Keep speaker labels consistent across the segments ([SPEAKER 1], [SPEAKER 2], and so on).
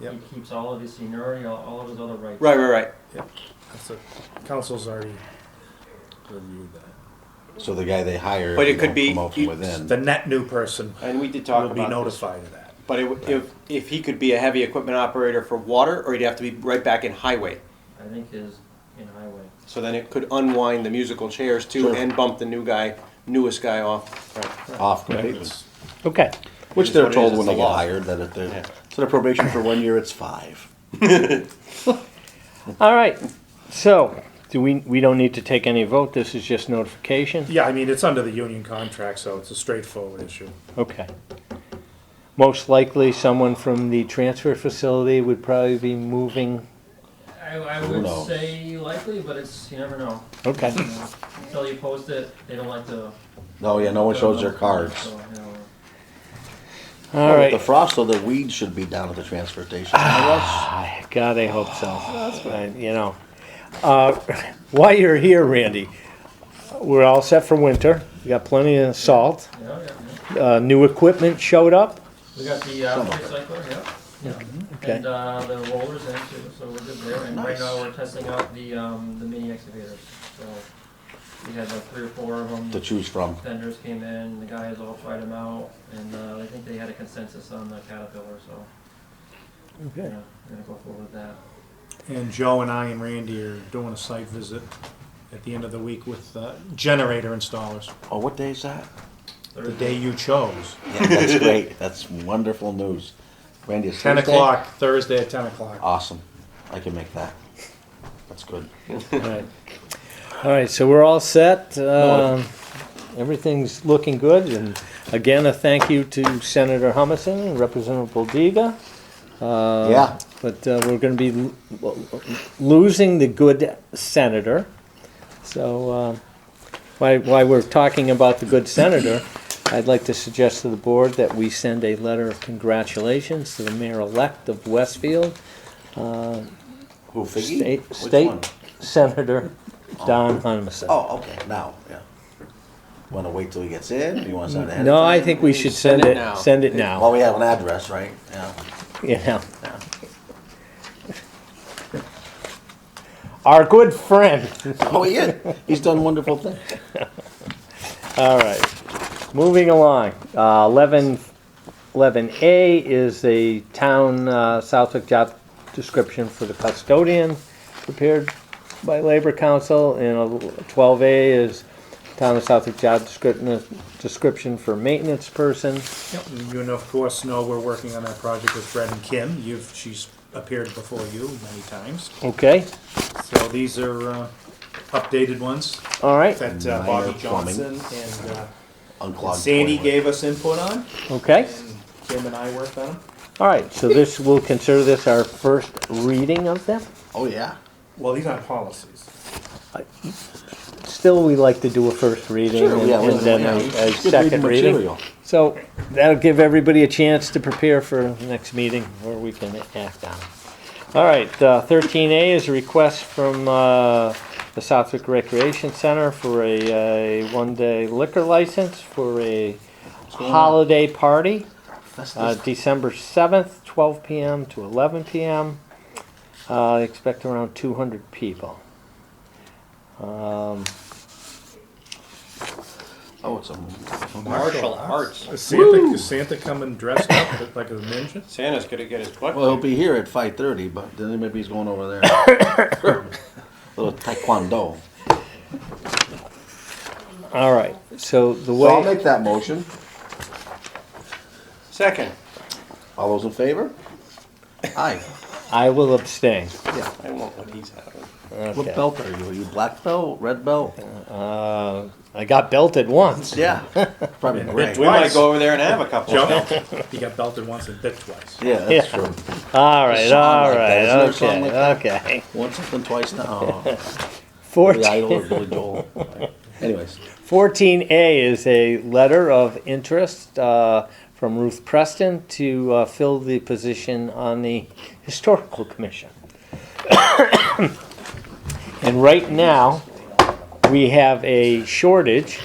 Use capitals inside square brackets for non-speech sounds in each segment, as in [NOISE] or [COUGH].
[SPEAKER 1] Yep.
[SPEAKER 2] He keeps all of his seniority, all, all of his other rights.
[SPEAKER 3] Right, right, right.
[SPEAKER 1] That's a, council's already reviewed that.
[SPEAKER 4] So the guy they hire,
[SPEAKER 3] But it
[SPEAKER 4] they
[SPEAKER 3] could
[SPEAKER 4] don't
[SPEAKER 3] be-
[SPEAKER 4] promote from
[SPEAKER 3] you-
[SPEAKER 4] within.
[SPEAKER 1] The net new person
[SPEAKER 3] And we did talk
[SPEAKER 1] will be
[SPEAKER 3] about this.
[SPEAKER 1] notified of that.
[SPEAKER 3] But it, w- if if he could be a heavy equipment operator for water, or he'd have to be right back in highway.
[SPEAKER 2] I think is in highway.
[SPEAKER 3] So then it could unwind the musical chairs too,
[SPEAKER 4] Sure.
[SPEAKER 3] and bump the new guy, newest guy off.
[SPEAKER 4] off completely.
[SPEAKER 5] Okay.
[SPEAKER 4] Which
[SPEAKER 3] It is
[SPEAKER 4] they're
[SPEAKER 3] what it
[SPEAKER 4] told
[SPEAKER 3] is,
[SPEAKER 4] when
[SPEAKER 3] it's
[SPEAKER 4] they
[SPEAKER 3] the
[SPEAKER 4] get
[SPEAKER 3] law.
[SPEAKER 4] hired that if they're,
[SPEAKER 3] Yeah.
[SPEAKER 4] so their probation for one year, it's five.
[SPEAKER 5] All right. So, do we, we don't need to take any vote. This is just notification?
[SPEAKER 1] Yeah, I mean, it's under the union contract, so it's a straightforward issue.
[SPEAKER 5] Okay. Most likely, someone from the transfer facility would probably be moving.
[SPEAKER 2] I, I
[SPEAKER 4] Who
[SPEAKER 2] would
[SPEAKER 4] knows?
[SPEAKER 2] say likely, but it's, you never know.
[SPEAKER 5] Okay.
[SPEAKER 2] You know, Until you post it, they don't like to.
[SPEAKER 4] No, yeah, no one shows their cards.
[SPEAKER 2] So, you know.
[SPEAKER 5] All
[SPEAKER 4] Well, with The
[SPEAKER 5] right.
[SPEAKER 4] frost, though, the weeds should be down at the transfer station. Russ?
[SPEAKER 5] I- God, I hope so. I- You know. Uh, [LAUGHS] While you're here, Randy, we're all set for winter. We got plenty of salt.
[SPEAKER 2] Yeah, yeah, yeah.
[SPEAKER 5] Uh, New equipment showed up.
[SPEAKER 2] We got the, uh, recycler, yeah, yeah.
[SPEAKER 5] Okay.
[SPEAKER 2] And, uh, the rollers in too, so we're good there. And right
[SPEAKER 4] Nice.
[SPEAKER 2] now, we're testing out the, um, the mini excavators. So we had like three or four of them.
[SPEAKER 4] To choose from.
[SPEAKER 2] vendors came in, the guys all tried them out, and uh, I think they had a consensus on the Caterpillar, so yeah,
[SPEAKER 5] Okay.
[SPEAKER 2] we're gonna go forward with that.
[SPEAKER 1] And Joe and I and Randy are doing a site visit at the end of the week with uh, generator installers,
[SPEAKER 4] Oh, what day is that?
[SPEAKER 1] the day you chose.
[SPEAKER 4] Yeah,
[SPEAKER 3] [LAUGHS]
[SPEAKER 4] that's great. That's wonderful news. Randy, it's
[SPEAKER 1] 10
[SPEAKER 4] Thursday?
[SPEAKER 1] o'clock, Thursday at 10 o'clock.
[SPEAKER 4] Awesome. I can make that. That's good.
[SPEAKER 5] All right. All right, so we're all set. Um, Everything's looking good, and again, a thank you to Senator Humison and Representative Boldiga. Uh,
[SPEAKER 4] Yeah.
[SPEAKER 5] But uh, we're going to be lo- lo- losing the good senator. So uh, while while we're talking about the good senator, I'd like to suggest to the board that we send a letter of congratulations to the mayor-elect of Westfield, uh,
[SPEAKER 4] Who, Figgy?
[SPEAKER 5] State,
[SPEAKER 4] Which one?
[SPEAKER 5] State Senator Don Humison.
[SPEAKER 4] Oh, okay, now, yeah. Want to wait till he gets in? You want to send it? ahead of
[SPEAKER 5] No,
[SPEAKER 4] time?
[SPEAKER 5] I think we should send
[SPEAKER 3] Send it
[SPEAKER 5] it,
[SPEAKER 3] now.
[SPEAKER 5] send it
[SPEAKER 4] Well,
[SPEAKER 5] now,
[SPEAKER 4] Oh, we have an address, right? Yeah.
[SPEAKER 5] you know. Our good friend, [LAUGHS]
[SPEAKER 4] Oh, yeah. He's done wonderful things.
[SPEAKER 5] all right. Moving along, uh, eleven, eleven A is the town, uh, Southwick job description for the custodian prepared by Labor Council, and twelve A is town of Southwick job description, description for maintenance person.
[SPEAKER 1] You and of course know we're working on that project with Fred and Kim. You've, she's appeared before you many times.
[SPEAKER 5] Okay,
[SPEAKER 1] So these are uh, updated ones
[SPEAKER 5] all right,
[SPEAKER 1] that uh,
[SPEAKER 4] Minor
[SPEAKER 1] Bobby
[SPEAKER 4] plumbing.
[SPEAKER 1] Johnson and uh,
[SPEAKER 4] Unclogged
[SPEAKER 1] Sandy
[SPEAKER 4] toilet.
[SPEAKER 1] gave us input on.
[SPEAKER 5] okay.
[SPEAKER 1] Kim and I worked on them.
[SPEAKER 5] All right, so this, we'll consider this our first reading of them.
[SPEAKER 4] Oh, yeah.
[SPEAKER 1] Well, these aren't policies.
[SPEAKER 5] Still, we like to do a first reading
[SPEAKER 4] Sure,
[SPEAKER 5] and
[SPEAKER 4] yeah,
[SPEAKER 5] and
[SPEAKER 4] listen,
[SPEAKER 5] then uh,
[SPEAKER 4] yeah,
[SPEAKER 5] a
[SPEAKER 4] it's
[SPEAKER 5] a
[SPEAKER 4] good reading
[SPEAKER 5] second reading.
[SPEAKER 4] material.
[SPEAKER 5] So that'll give everybody a chance to prepare for next meeting where we can act on it. All right, uh, thirteen A is a request from uh, the Southwick Recreation Center for a uh, one-day liquor license for a
[SPEAKER 4] going on?
[SPEAKER 5] holiday party.
[SPEAKER 4] That's
[SPEAKER 5] Uh,
[SPEAKER 4] this-
[SPEAKER 5] December 7th, 12 p.m. to 11 p.m. Uh, I expect around 200 people. Um,
[SPEAKER 4] oh, it's a
[SPEAKER 3] Martial arts.
[SPEAKER 1] Is Santa, is Santa coming dressed up like a ninja?
[SPEAKER 3] Santa's gonna get his butt.
[SPEAKER 4] Well, he'll be here at five thirty, but then maybe he's going over there. Little taekwondo.
[SPEAKER 5] all right. So the
[SPEAKER 4] So I'll
[SPEAKER 5] way
[SPEAKER 4] make that motion.
[SPEAKER 3] Second,
[SPEAKER 4] All those in favor? Aye.
[SPEAKER 5] I will abstain.
[SPEAKER 4] Yeah.
[SPEAKER 3] I want what he's having.
[SPEAKER 4] What
[SPEAKER 5] Okay.
[SPEAKER 4] belt are you? Are you black belt, red belt?
[SPEAKER 5] Uh, I got belted once.
[SPEAKER 4] Yeah. Probably gray.
[SPEAKER 3] We might go over there and have a couple.
[SPEAKER 1] Jump. he got belted once and bit twice.
[SPEAKER 4] Yeah, that's
[SPEAKER 5] Yeah.
[SPEAKER 4] true.
[SPEAKER 5] All right.
[SPEAKER 4] There's something
[SPEAKER 5] All
[SPEAKER 4] like that.
[SPEAKER 5] right.
[SPEAKER 4] Isn't there
[SPEAKER 5] okay.
[SPEAKER 4] something like that?
[SPEAKER 5] okay. [LAUGHS]
[SPEAKER 4] Once up and twice now. Oh, Billy
[SPEAKER 5] 14,
[SPEAKER 4] Idol or Billy Joel. Anyways,
[SPEAKER 5] 14A is a letter of interest uh, from Ruth Preston to uh, fill the position on the Historical Commission. [COUGHS] and right now, we have a shortage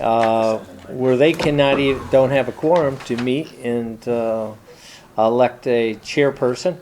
[SPEAKER 5] uh, where they e, cannot even, don't have a quorum to meet and uh, elect a chairperson.